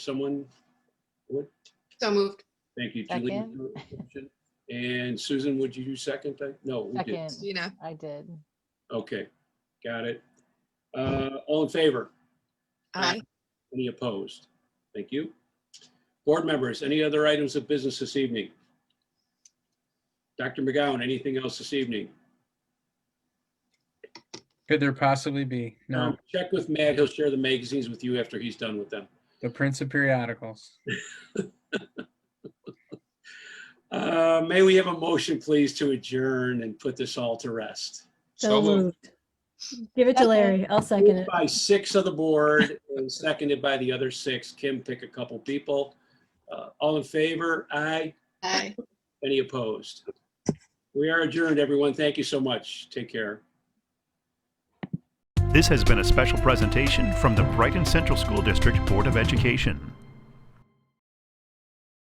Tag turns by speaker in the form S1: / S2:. S1: someone? What?
S2: So moved.
S1: Thank you, Julie. And Susan, would you do second that? No, we did.
S3: Second,
S2: You know,
S3: I did.
S1: Okay, got it. Uh, all in favor?
S2: aye.
S1: Any opposed? Thank you. Board members, any other items of business this evening? Dr. McGowan, anything else this evening?
S4: Could there possibly be? No,
S1: Um, Check with Matt. He'll share the magazines with you after he's done with them.
S4: the Prince of Periodicals.
S1: Uh, may we have a motion, please, to adjourn and put this all to rest?
S5: So moved.
S6: Give it to
S3: Second.
S6: Larry. I'll second
S1: Moved
S6: it.
S1: By six of the board and seconded by the other six. Kim, pick a couple people. Uh, all in favor? Aye.
S2: Aye.
S1: Any opposed? We are adjourned, everyone. Thank you so much. Take care.
S7: This has been a special presentation from the Brighton Central School District Board of Education.